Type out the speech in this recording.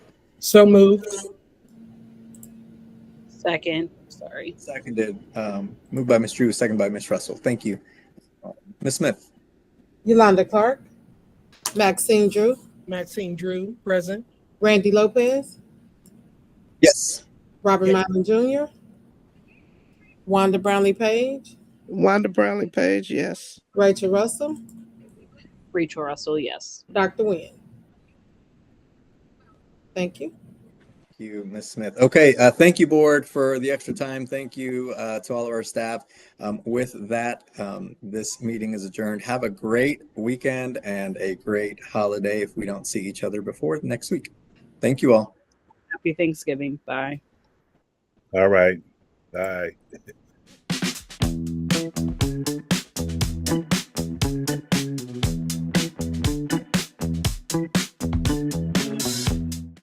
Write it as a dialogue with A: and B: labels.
A: So moved.
B: Second, sorry.
C: Seconded, um, moved by Ms. Drew, seconded by Ms. Russell. Thank you. Uh, Ms. Smith,
D: Yolanda Clark, Maxine Drew,
A: Maxine Drew, present.
D: Randy Lopez,
C: yes.
D: Robert Milam Jr., Wanda Brownlee Page,
E: Wanda Brownlee Page, yes.
D: Rachel Russell,
B: Rachel Russell, yes.
D: Dr. Nguyen. Thank you.
C: Thank you, Ms. Smith. Okay, uh, thank you, board, for the extra time. Thank you uh, to all of our staff. Um, with that, um, this meeting is adjourned. Have a great weekend and a great holiday if we don't see each other before next week. Thank you all.
B: Happy Thanksgiving. Bye.
F: All right. Bye.